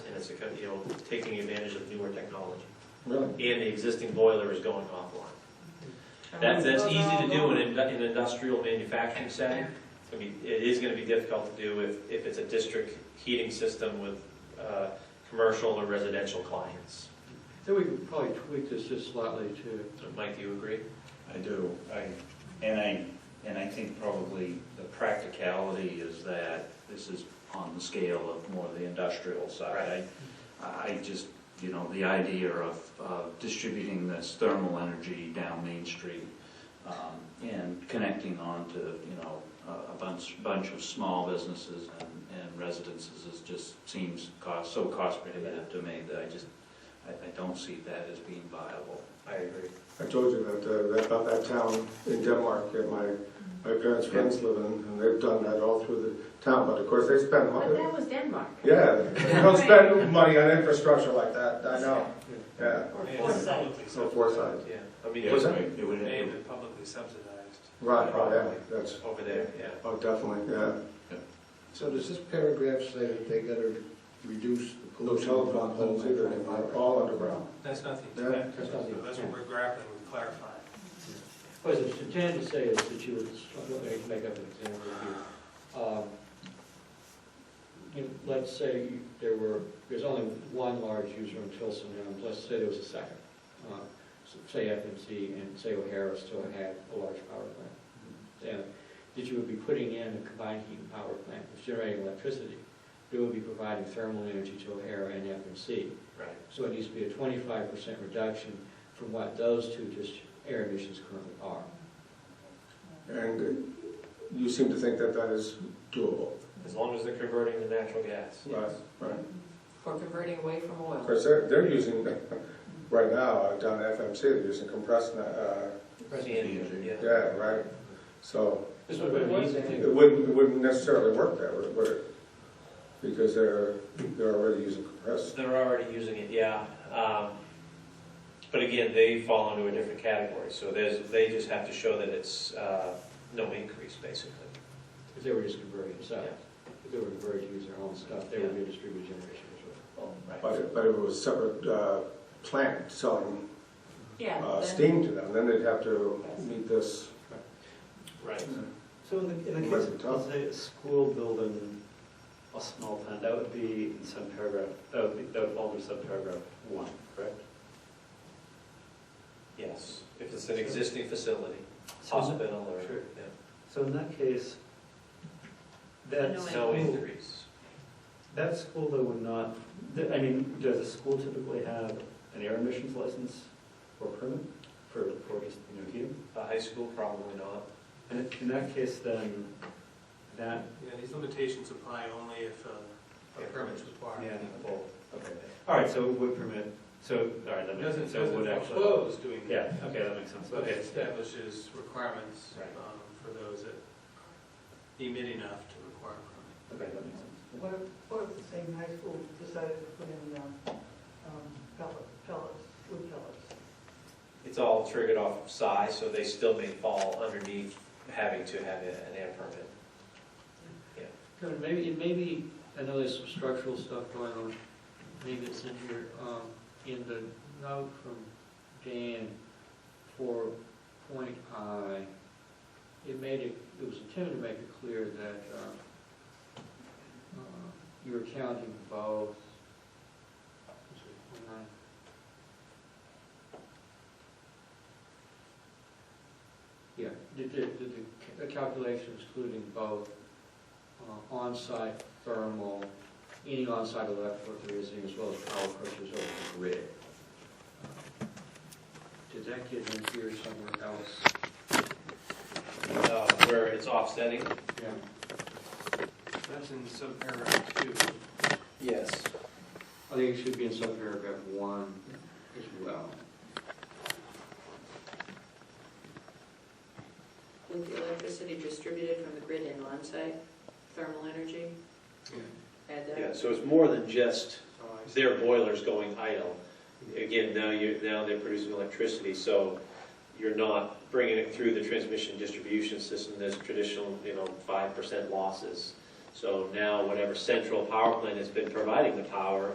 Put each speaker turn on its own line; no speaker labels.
it's, a kind of, you know, taking advantage of newer technology.
Really?
And the existing boiler is going offline.
Oh.
That, that's easy to do in, an indu- in an industrial manufacturing setting. I mean, it is gonna be difficult to do if, if it's a district heating system with, uh, commercial or residential clients.
Then we could probably tweak this just slightly to,
So, Mike, do you agree?
I do. I, and I, and I think probably the practicality is that this is on the scale of more the industrial side. I, I just, you know, the idea of, of distributing this thermal energy down Main Street um, and connecting on to, you know, a a bunch, bunch of small businesses and and residences is just seems cost, so cost prohibitive to me that I just, I, I don't see that as being viable.
I agree.
I told you that, uh, that, about that town in Denmark that my, my parents' friends live in, and they've done that all through the town, but of course, they spend
But
money.
that was Denmark.
Yeah, they don't spend money on infrastructure like that, I know, yeah,
Or
And it's
Forsyth.
publicly
so
subsidized.
foresight.
Yeah, I mean,
Yeah, What's that?
It would-
They have been publicly subsidized.
Right, right, yeah, that's,
over there, yeah.
oh, definitely, yeah.
So does this paragraph say that they gotta reduce the
No
pollution?
telephone poles either, they're all underground.
That's not the
Yeah,
intent.
that's
not the
So That's what we're grappling with clarifying.
what is it, intended to say is that you would, let me make up an example here. Um, you know, Let's say there were, there's only one large user in Tilson, and let's say there was a second. Uh, so Say FMC and say O'Hara still had a large power plant. And that you would be putting in a combined heat and power plant, that's generating electricity. It would be providing thermal energy to O'Hara and FMC.
Right.
So it needs to be a twenty-five percent reduction from what those two just air emissions currently are.
And you seem to think that that is doable.
As long as they're converting to natural gas.
Right, right.
Or converting away from
Of
oil.
course, they're, they're using, right now, uh, down at FMC, they're using compressed, uh,
CNG, yeah.
yeah, right? So
This would be an easy
it
thing.
wouldn't, it wouldn't necessarily work that way, would it? Because they're, they're already using compressed.
They're already using it, yeah. Um, But again, they fall into a different category, so there's, they just have to show that it's uh, no increase, basically.
If they were just converting themselves, if they were converting to use their own stuff, they would be a distributed generation as well.
But, if- but if it was separate, uh, plant selling,
Yeah.
uh,
then-
steam to them, then they'd have to meet this.
Right.
So in the, in the
Might
case
be
of,
tough.
let's say, a school building, a small plant, that would be in some paragraph, that would, be- that would fall under subparagraph one, correct?
Yes, if it's an existing facility, hospital or,
Sure.
yeah.
So in that case, that
No
no
school,
increase.
that school though would not, th- I mean, does a school typically have an air emissions license or permit for, for just, you know, heating?
A high school, probably not.
And if- in that case, then, that,
Yeah, these limitations apply only if uh, a permit's required.
yeah, well, okay. All right, so it would permit, so, all right, that
It
makes
doesn't,
sense, so it would
doesn't
actually.
foreclose doing that.
Yeah, okay, that makes sense,
But
okay.
it establishes requirements
Right.
um, for those that emit enough to require a
Okay, that makes sense.
What if, what if the same high school decided to put in um, um, pellet- pellets, wood pellets?
It's all triggered off of size, so they still may fall underneath having to have a- an air permit.
Kevin, maybe, and maybe, I know there's some structural stuff going on, maybe it's in here, um, in the note from Dan for point I, it made it, it was intended to make it clear that, uh, uh, you were counting both. let's see, point I. Yeah, did, did, did the ca- calculation excluding both uh, on-site thermal, any on-site electrical there is, as well as power purchase over the grid. Uh, Did that get in here somewhere else?
Uh, Where it's offsetting?
Yeah.
permit. That's in subparagraph two.
Yes.
I think it should be in subparagraph one as well.
With the electricity distributed from the grid and on-site, thermal energy, add that.
Yeah, so it's more than just
So I-
their boiler's going idle. Again, now you, now they're producing electricity, so you're not bringing it through the transmission distribution system, there's traditional, you know, five percent losses. So now whatever central power plant has been providing the power